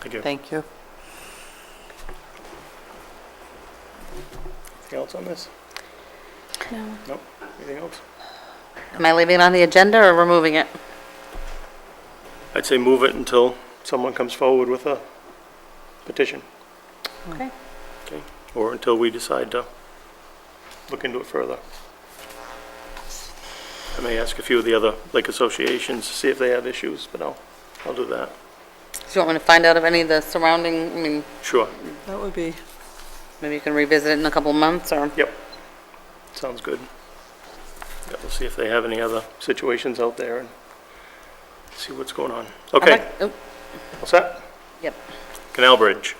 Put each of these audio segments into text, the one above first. Thank you. Thank you. Anything else on this? No. Nope. Anything else? Am I leaving it on the agenda or removing it? I'd say move it until someone comes forward with a petition, Okay. okay? Or until we decide to look into it further. I may ask a few of the other lake associations, to see if they have issues, but I'll, I'll do that. Do you want me to find out if any of the surrounding, I mean, Sure. That would be, maybe you can revisit it in a couple of months or? Yep. Sounds good. Yeah, We'll see if they have any other situations out there and see what's going on. Okay, Oh, what's that? Yep. Canal Bridge.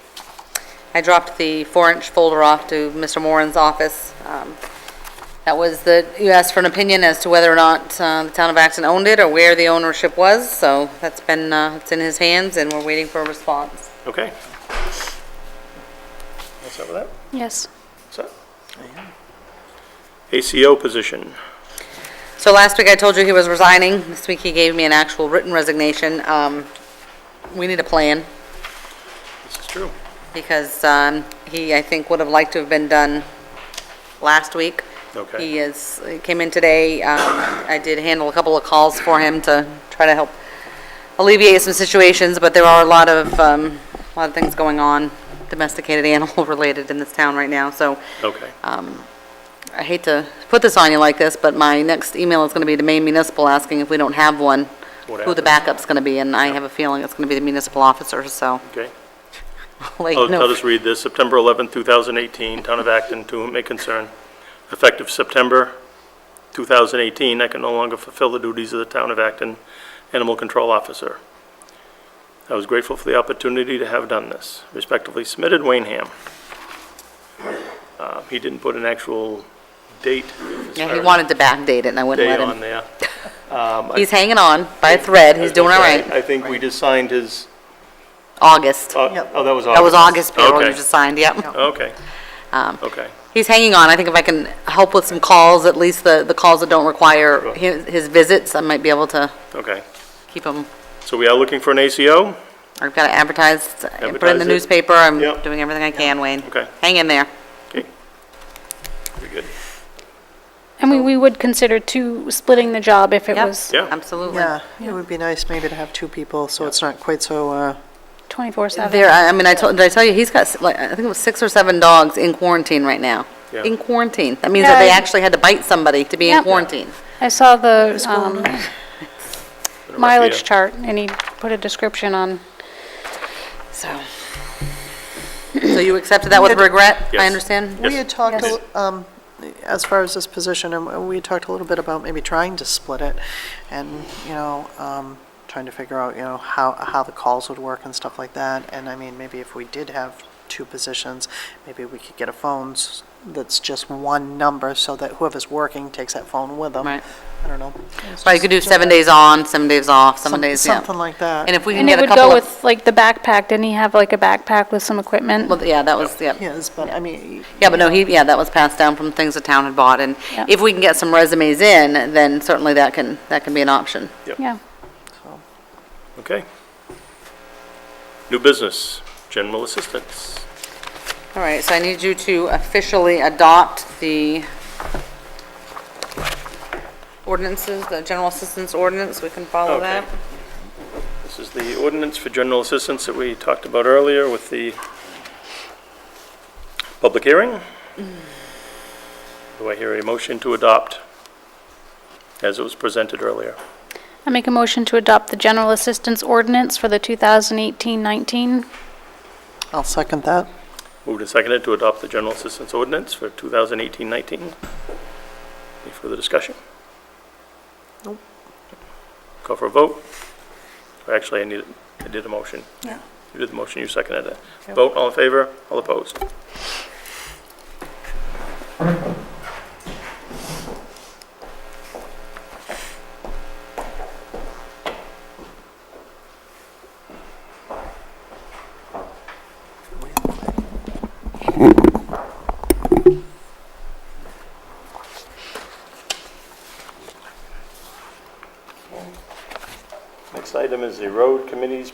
I dropped the four-inch folder off to Mr. Moran's office. Um, That was the, you asked for an opinion as to whether or not uh, the town of Acton owned it or where the ownership was, so that's been, uh, it's in his hands and we're waiting for a response. Okay. What's up with that? Yes. What's up? ACO position. So last week I told you he was resigning. This week he gave me an actual written resignation. Um, We need a plan. This is true. because um, he, I think, would have liked to have been done last week. Okay. He is, he came in today, um, I did handle a couple of calls for him to try to help alleviate some situations, but there are a lot of, um, a lot of things going on, domesticated animal-related in this town right now, so Okay. I hate to put this on you like this, but my next email is going to be to Maine Municipal asking if we don't have one, What who the happens? backup's going to be, and I have a feeling it's going to be the municipal officer, so. Okay. I'll let you I'll know. I'll just read this. September 11, 2018, Town of Acton, to whom it may concern. Effective September 2018, I can no longer fulfill the duties of the Town of Acton Animal Control Officer. I was grateful for the opportunity to have done this. Respectively submitted, Wayne Ham. Uh, He didn't put an actual date. as Yeah, far he as wanted to backdate it, and I wouldn't Day let him. on there. He's hanging on by a thread, he's doing all right. I think we just signed his, August. oh, oh, that was August. That was August payroll you Okay. just signed, yep. Um, Okay. Okay. He's hanging on, I think if I can help with some calls, at least the, the calls that don't require his his visits, I might be able to Okay. keep him. So we are looking for an ACO? I've got to advertise, put it in Advertise the it. newspaper, I'm Yep. doing everything I can, Wayne. Okay. Hang in there. Okay. Very good. I mean, we would consider two, splitting the job if it Yep, was Yeah. Absolutely. yeah, it would be nice maybe to have two people, so it's not quite so, uh, 24/7. There, I I mean, I told, did I tell you, he's got, s- like, I think it was six or seven dogs in quarantine right now. Yeah. In quarantine, that means that they Yeah. actually had to bite somebody to be in Yep. quarantine. I saw the um, Been a rough mileage year. chart, and he put a description on, So, so you accepted that with regret, Yes. I understand? Yes. we had talked, a Yes. li- um, as far as this position, and we had talked a little bit about maybe trying to split it, and, you know, um, trying to figure out, you know, how, how the calls would work and stuff like that, and I mean, maybe if we did have two positions, maybe we could get a phone s- that's just one number, so that whoever's working takes that phone with them. Right. I don't know. Right, you could do seven days on, seven days off, seven days, yeah. Something like that. And if we can and it get a would couple go of, with like the backpack. Didn't he have like a backpack with some equipment? well, yeah, that was, yeah. Yes, but I mean, Yeah, but no, he, yeah, that was passed down from things the town had bought, and Yeah. if we can get some resumes in, then certainly that can, that can be an option. Yeah. so. Okay. New business, general assistance. All right, so I need you to officially adopt the ordinances, the general assistance ordinance, we can follow Okay. that. This is the ordinance for general assistance that we talked about earlier with the public hearing. Do I hear a motion to adopt as it was presented earlier? I make a motion to adopt the general assistance ordinance for the 2018-19. I'll second that. Moved and seconded to adopt the general assistance ordinance for 2018-19. Any further discussion? Nope. Call for a vote? Or Actually, I need, I did a motion. Yeah. You did the motion, you seconded it. Vote, all in favor, all opposed? Next item is the road committee's